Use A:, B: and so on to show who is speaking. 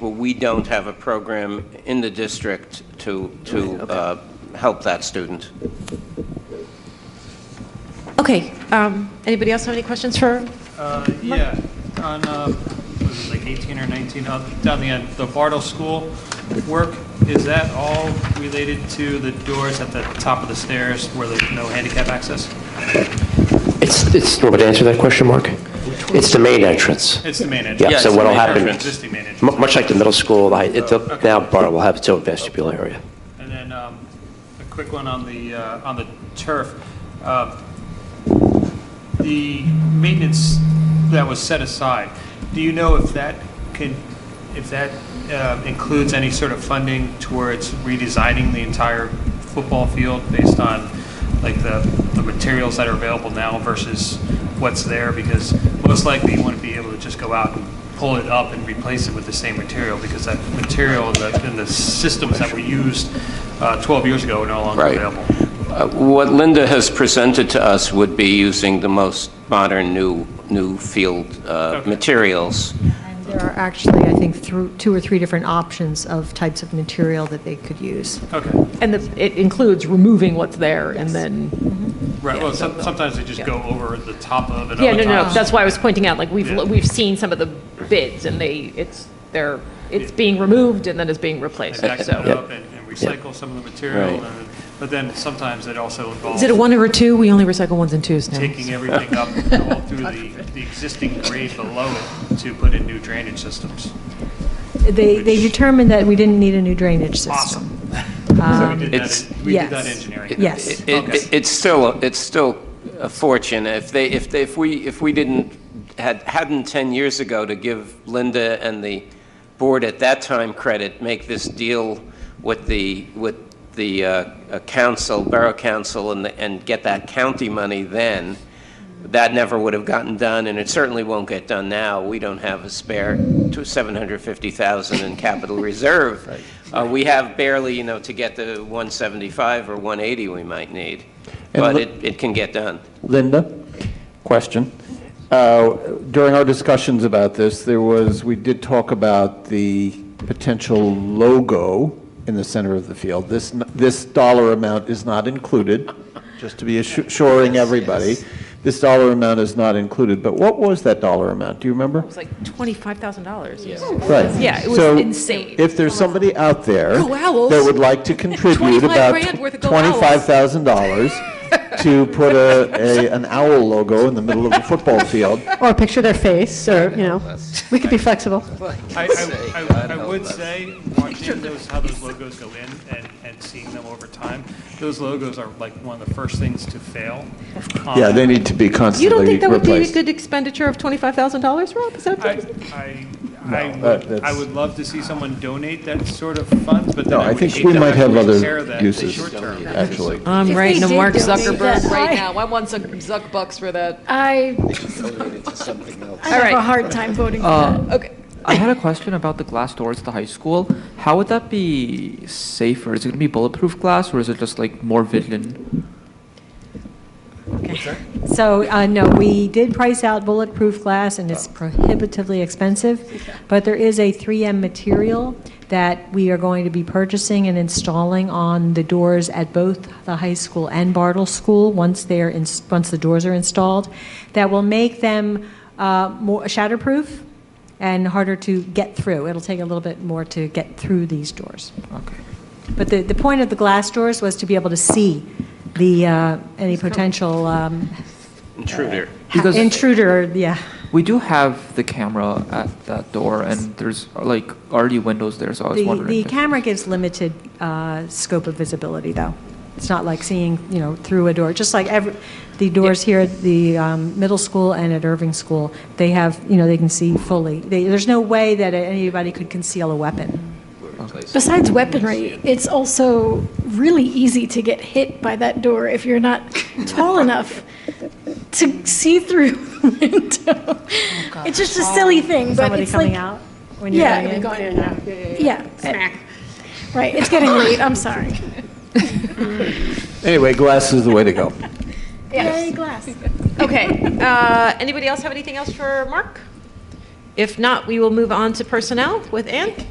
A: Well, we don't have a program in the district to, to uh, help that student.
B: Okay, um, anybody else have any questions for,
C: Uh, Yeah, on, uh, was it like 18 or 19, up, down the end, the Bartle School work, is that all related to the doors at the top of the stairs where there's no handicap access?
D: It's, it's, want me to answer that question, Mark? It's the main entrance.
C: It's the main entrance?
D: Yeah,
A: Yeah,
D: so
A: it's the
D: what'll
A: main
D: happen,
A: entrance.
C: Existing main
D: mu-
C: entrance.
D: much like the middle school, I- it- the- now Bartle will have its own vestibule area.
C: And then um, a quick one on the, uh, on the turf. Uh, The maintenance that was set aside, do you know if that can, if that uh, includes any sort of funding towards redesigning the entire football field based on like the, the materials that are available now versus what's there? Because most likely you want to be able to just go out and pull it up and replace it with the same material because that material and the, and the systems that were used uh, 12 years ago are no longer
A: Right.
C: available.
A: Uh, What Linda has presented to us would be using the most modern new, new field uh,
C: Okay.
A: materials.
E: And there are actually, I think, through, two or three different options of types of material that they could use.
C: Okay.
B: and the- it includes removing what's there and then,
C: Right, well, some- sometimes they just go over the top of and
B: yeah, no,
C: other
B: no,
C: times-
B: that's why I was pointing out, like, we've,
C: Yeah.
B: we've seen some of the bids and they, it's, they're, it's being removed and then it's being replaced,
C: They back it
B: so.
C: up and and recycle some of the material,
A: Right.
C: and- but then sometimes it also involves
B: Is it a one or a two? We only recycle ones and twos now.
C: taking everything up all through the, the existing grade below it to put in new drainage systems.
E: They, they determined that we didn't need a new drainage system. Um,
C: Awesome. So
B: Um,
C: we did
A: It's-
C: that, we did that
E: yes.
C: engineering.
A: It-
E: Yes.
A: it- it- It's still, it's still a fortune. If they, if they, if we, if we didn't, had, hadn't 10 years ago to give Linda and the board at that time credit, make this deal with the, with the uh, uh, council, borough council, and, the- and get that county money then, that never would have gotten done, and it certainly won't get done now. We don't have a spare to 750,000 in capital reserve. Uh, We have barely, you know, to get the 175 or 180 we might need,
F: And
A: but
F: the-
A: it, it can get done.
F: Linda, question. Uh, During our discussions about this, there was, we did talk about the potential logo in the center of the field. This, n- this dollar amount is not included, just to be assuring everybody. This dollar amount is not included, but what was that dollar amount? Do you remember?
B: It's like twenty-five thousand dollars.
F: Right.
B: Yeah, it was
F: So,
B: insane.
F: If there's somebody out there
B: Go Owls.
F: that would like to contribute
B: 25
F: about
B: grand worth of Go
F: $25,000 to put a, a, an owl logo in the middle of the football field,
G: Or a picture of their face, or, you know, we could be flexible.
C: I, I- I, I would say, watching those, how those logos go in and, and seeing them over time, those logos are like one of the first things to fail. Um,
F: yeah, they need to be
B: You don't
F: constantly
B: think that would be a
F: replaced.
B: good expenditure of twenty-five thousand dollars, Rob? Is that
C: I,
B: okay?
C: I, I
F: No, that-
C: would, I
F: that's-
C: would love to see someone donate that sort of funds, but then I
F: No, I
C: would
F: think
C: hate
F: we
C: to
F: might have
C: actually
F: other
C: share that in the
F: uses.
C: short term.
F: Actually,
B: I'm writing to Mark Zuckerberg
H: right now. I want Zuck, Zuck bucks for that.
G: I, I
B: All
G: have a
B: right.
G: hard time voting for that.
I: Uh,
H: Okay.
I: I had a question about the glass doors at the high school. How would that be safer? Is it going to be bulletproof glass or is it just like more vigilant?
E: So, uh, no, we did price out bulletproof glass, and it's prohibitively expensive, but there is a 3M material that we are going to be purchasing and installing on the doors at both the high school and Bartle School, once they're, in- once the doors are installed, that will make them uh, more shatterproof and harder to get through. It'll take a little bit more to get through these doors.
I: Okay.
E: But the, the point of the glass doors was to be able to see the, uh, any potential um,
A: Intruder.
I: Because-
E: intruder, yeah.
I: We do have the camera at that door and there's like already windows there, so I was
E: The,
I: wondering.
E: the
I: if-
E: camera gives limited uh, scope of visibility, though. It's not like seeing, you know, through a door, just like every, the doors here at the um, middle school and at Irving School, they have, you know, they can see fully. They- There's no way that anybody could conceal a weapon.
G: Besides weaponry, it's also really easy to get hit by that door if you're not tall enough to see through the window. It's just a silly thing, but
E: Somebody
G: it's like.
E: coming out when you're
G: Yeah,
E: going in?
G: going in and out. Yeah. Smack. Right, it's getting late, I'm sorry.
F: anyway, glass is the way to go.
G: Yay, glass.
B: Okay, uh, anybody else have anything else for Mark? If not, we will move on to personnel with Ann.